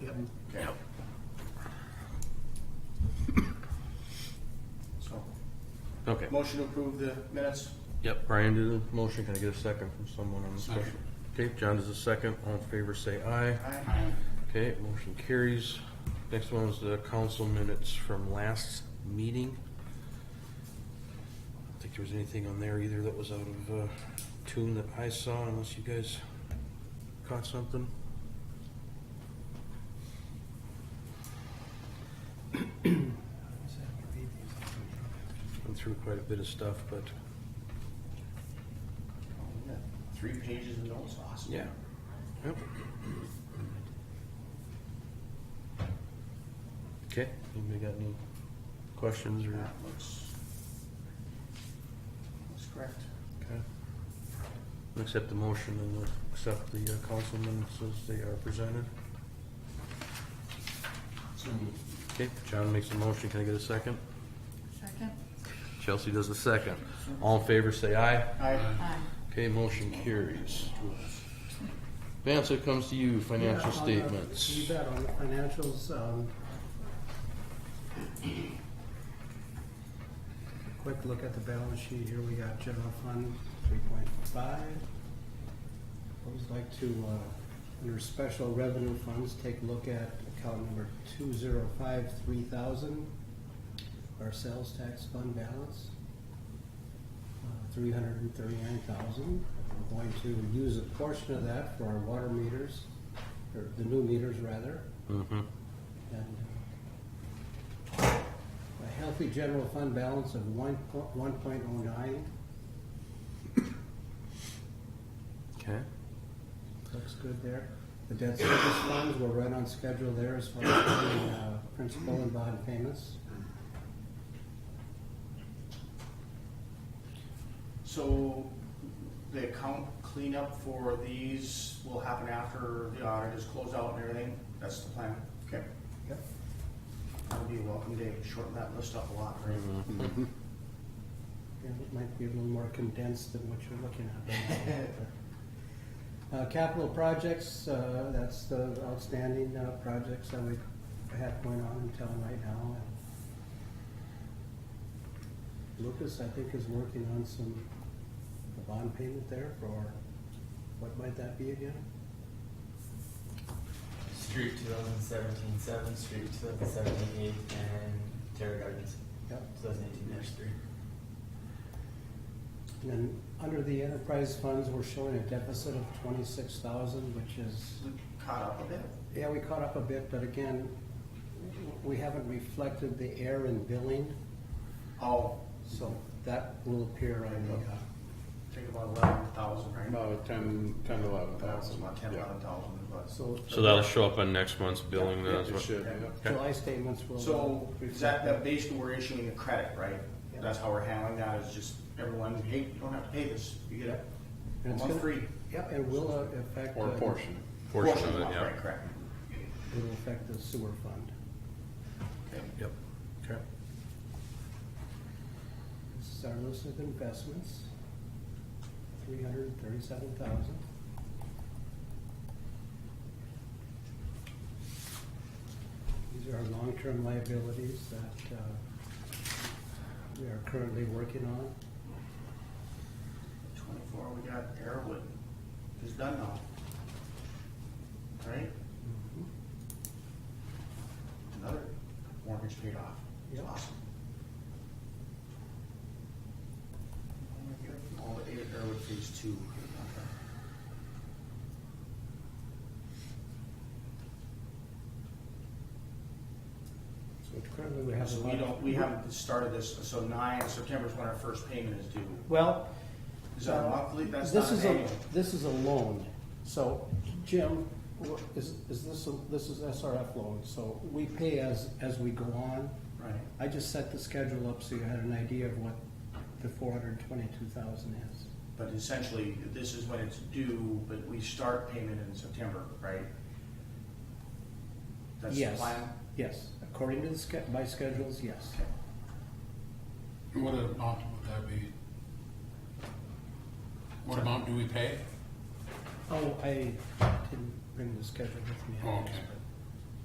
Second. So, Okay. motion to approve the minutes? Yep, Brian did a motion. Can I get a second from someone on the special? Okay, John does a second. All in favor, say aye. Aye. Okay, motion carries. Next one is the council minutes from last meeting. I don't think there was anything on there either that was out of uh, tune that I saw unless you guys caught something. Went through quite a bit of stuff, but Three pages of notes, awesome. yeah. Yep. Okay, anybody got any questions or? That looks, looks correct. Okay. I'll Accept the motion and we'll accept the uh, council minutes as they are presented. So, Okay, John makes a motion, can I get a second? Second? Chelsea does a second. All in favor, say aye. aye. Aye. Okay, motion carries. Vance, it comes to you, Yeah, financial on the- You statements. bet, on the financials, um, quick look at the balance sheet here, we got general fund, three point five. I would like to, uh, under special revenue funds, take a look at account number two zero five three thousand, our sales tax fund balance, three hundred and thirty-nine thousand. We're going to use a portion of that for our water meters, or the new meters rather, Mhm. and uh, a healthy general fund balance of one point, one point oh nine, Okay, looks good there. The debt service funds, we're right on schedule there as far as paying, uh, principal and bond payments. So, the account cleanup for these will happen after the audit is closed out and everything? That's the plan? Okay. Yep. That'll be a welcome day, shorten that list up a lot, right? Yeah, it might be a little more condensed than what you're looking at. Uh, capital projects, uh, that's the outstanding, uh, projects that we have going on in town right now. And Lucas, I think, is working on some, a bond payment there for, what might that be again? Street 2017 7, Street 2017 8, and Terra Gardens Yep. 2018 3. And then, under the enterprise funds, we're showing a deficit of twenty-six thousand, which is Caught up a bit? Yeah, we caught up a bit, but again, we haven't reflected the air and billing, Oh, so that will appear on the, uh, take about eleven thousand, right? About ten, ten to eleven thousand. About ten, eleven thousand, uh, but. so. so that'll show up on next month's billing then Yeah, as it well. should, yeah. July statements will. uh, So reflect is that, that basically we're issuing a credit, right? That's how we're handling that, is just everyone, hey, you don't have to pay this, you get a And it's month gonna- free. Yeah, it will uh, affect. Or a uh, portion. Portion of it, month, yeah. Right, correct. It will affect the sewer fund. Okay. Yep. Okay. This is our list of investments, three hundred and thirty-seven thousand. These are our long-term liabilities that uh, we are currently working on. Twenty-four, we got Airwood, it's done now. Right, Mm-hmm. another mortgage paid off, it's Yep. awesome. Oh my God, All the Airwood phase two. So currently we have. So we don't, we haven't started this, so nine, September's when our first payment is due. Well. uh, Is that a monthly? That's This not is an a, annual. this is a loan, so Jim, wha- is, is this, a- this is SRF loan, so we pay as, as we go on. Right. I just set the schedule up so you had an idea of what the four hundred and twenty-two thousand is. But essentially, this is when it's due, but we start payment in September, right? That's the Yes. plan? Yes, according to the sch- my schedules, yes. Okay. What amount would that be? What amount do we pay? Oh, I didn't bring the schedule with me. Okay.